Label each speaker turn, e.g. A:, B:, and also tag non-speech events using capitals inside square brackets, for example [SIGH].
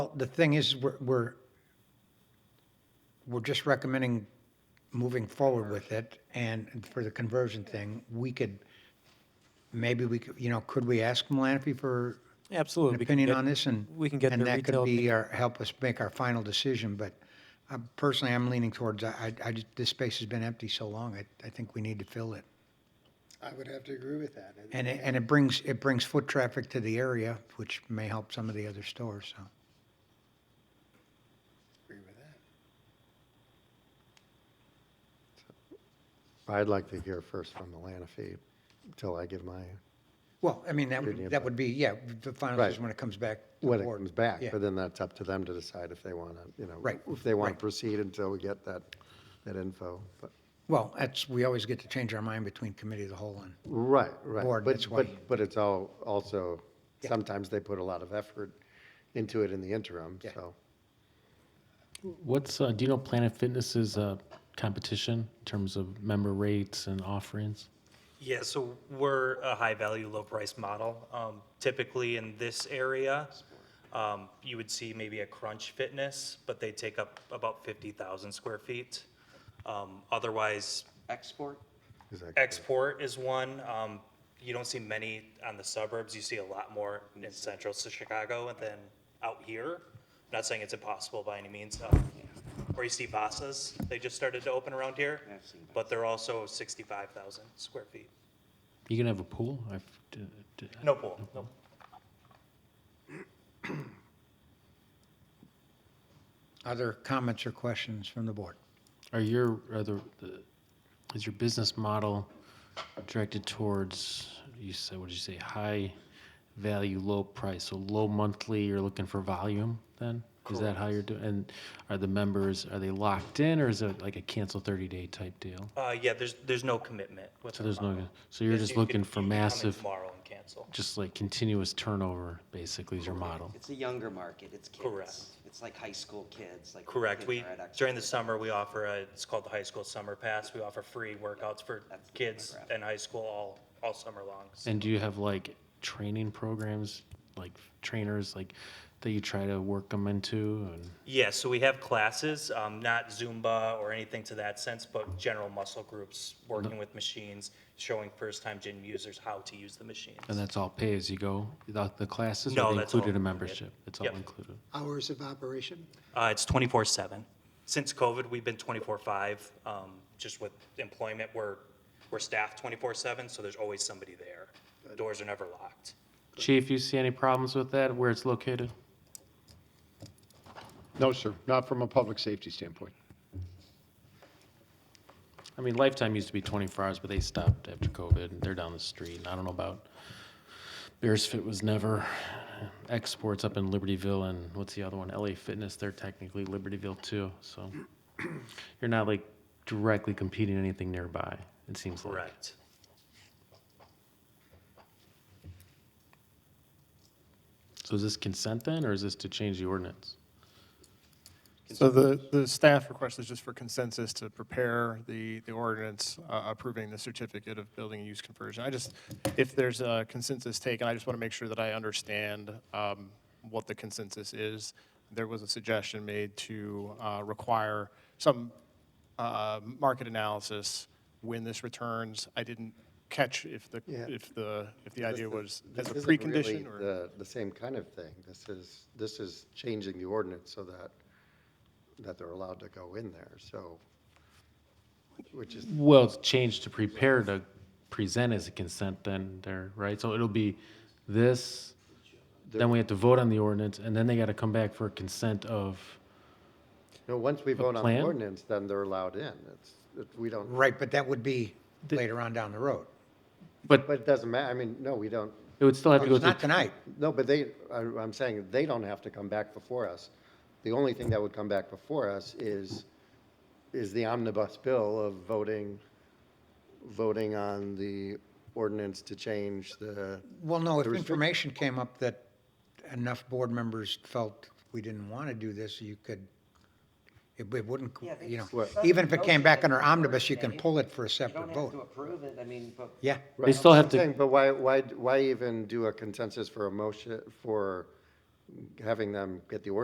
A: Well, The thing is, we're, we're, we're just recommending moving forward with it, and for the conversion thing, we could, maybe we could, you know, could we ask Malanaphy for
B: Absolutely.
A: an
B: we can
A: opinion
B: get-
A: on this, and
B: we can get
A: and
B: the
A: that could
B: retail
A: be our, help us make our final decision, but uh, personally, I'm leaning towards, I, I- I, just- this space has been empty so long, I, I think we need to fill it.
C: I would have to agree with that. And
A: And it, and it brings, it brings foot traffic to the area, which may help some of the other stores, so.
C: agree with that.
D: I'd like to hear first from Melanofi until I give my,
A: Well, I mean, that
D: Good
A: would, that would be, yeah, the final
D: Right.
A: decision when it comes back. to the
D: when it
A: board.
D: comes back.
A: Yeah.
D: But then that's up to them to decide if they want to, you know.
A: Right,
D: If they want
A: right.
D: to proceed until we get that, that info. But,
A: Well, that's, we always get to change our mind between committee of the whole and,
D: right, right.
A: Board,
D: But-
A: that's why-
D: But, but it's all, also, sometimes they put a lot of effort into it in the interim,
A: Yeah.
D: so.
E: What's uh, do you know Planet Fitness's uh, competition in terms of member rates and offerings?
F: Yeah, so we're a high-value, low-price model. Um, Typically, in this area, um, you would see maybe a Crunch Fitness, but they take up about 50,000 square feet. Um, Otherwise,
G: Export?
D: is that-
F: Export is one. Um, You don't see many on the suburbs. You see a lot more in central to Chicago than out here. Not saying it's impossible by any means. um, Or you see Vasas, they just started to open around here,
G: I've seen
F: but they're also 65,000 square feet.
E: You can have a pool. I've, d- d-
F: No pool, no.
A: other comments or questions from the board?
E: Are your are the, the is your business model directed towards you said what did you say high value low price so low monthly you're looking for volume then is that how you're doing and are the members are they locked in or is it like a cancel 30 day type deal
F: Uh, yeah, there's, there's no commitment with.
E: so
F: our
E: there's no
F: model.
E: so you're
F: Yes,
E: just
F: you could-
E: looking for
F: you could come in
E: massive
F: Tomorrow and cancel.
E: just like continuous turnover basically is your model
G: It's a younger market, it's kids.
F: Correct.
G: It's like high school kids, like.
F: Correct.
G: kids
F: We,
G: are at Export.
F: during the summer, we offer a, it's called the High School Summer Pass. We offer free workouts for
G: That's the
F: kids
G: demographic.
F: in high school all, all summer long. So-
E: and do you have like training programs like trainers like that you try to work them into and
F: Yeah, so we have classes, um, not Zumba or anything to that sense, but general muscle groups, working with machines, showing first-time gym users how to use the machines.
E: And that's all pay as you go. The, the classes
F: No,
E: or they
F: that's all
E: included a
F: included.
E: membership. It's all
F: Yep.
E: included.
C: Hours of operation?
F: Uh, it's twenty-four seven. Since COVID, we've been twenty-four five, um, just with employment, we're, we're staffed twenty-four seven, so there's always somebody there. Doors are never locked.
E: Chief, you see any problems with that? Where it's located?
H: No, sir, not from a public safety standpoint.
E: I mean, Lifetime used to be 24 hours, but they stopped after COVID. They're down the street. And I don't know about Bears Fit was never exports up in Libertyville and what's the other one? LA Fitness. They're technically Libertyville too. So [CLEARS THROAT] you're not like directly competing anything nearby. It seems like.
F: Correct.
E: So is this consent then, or is this to change the ordinance?
I: So the, the staff request is just for consensus to prepare the, the ordinance uh, approving the certificate of building and use conversion. I just, if there's a consensus taken, I just want to make sure that I understand um, what the consensus is. There was a suggestion made to uh, require some uh, market analysis when this returns. I didn't catch if the,
D: Yeah.
I: if the, if the idea was as a
D: This isn't really
I: precondition or?
D: The, the same kind of thing. This is, this is changing the ordinance so that, that they're allowed to go in there, so, which is
E: Well, it's changed to prepare to present as a consent then there, right? So it'll be this, then we have to vote on the ordinance, and then they gotta come back for consent of,
D: No, once we vote on the
E: plan?
D: ordinance, then they're allowed in. It's, it- we don't,
A: Right, but that would be later on down the road.
E: but
D: but it doesn't matter, I mean, no, we don't,
E: it would still have to go
A: It's not
E: through.
A: tonight.
D: no, but they, I- I'm saying, they don't have to come back before us. The only thing that would come back before us is, is the omnibus bill of voting, voting on the ordinance to change the,
A: Well, no, if
D: The restrict-
A: information came up that enough board members felt we didn't want to do this, you could, it it wouldn't,
G: Yeah, they
A: you
G: just-
A: know,
G: Right.
A: even if it came back under omnibus, you can
G: Yeah.
A: pull it for a
G: You don't
A: separate
G: have to
A: vote.
G: approve it, I mean, but.
A: Yeah,
E: They still have to,
D: Saying, But why, why, why even do a consensus for a motion, for having them get the ordinance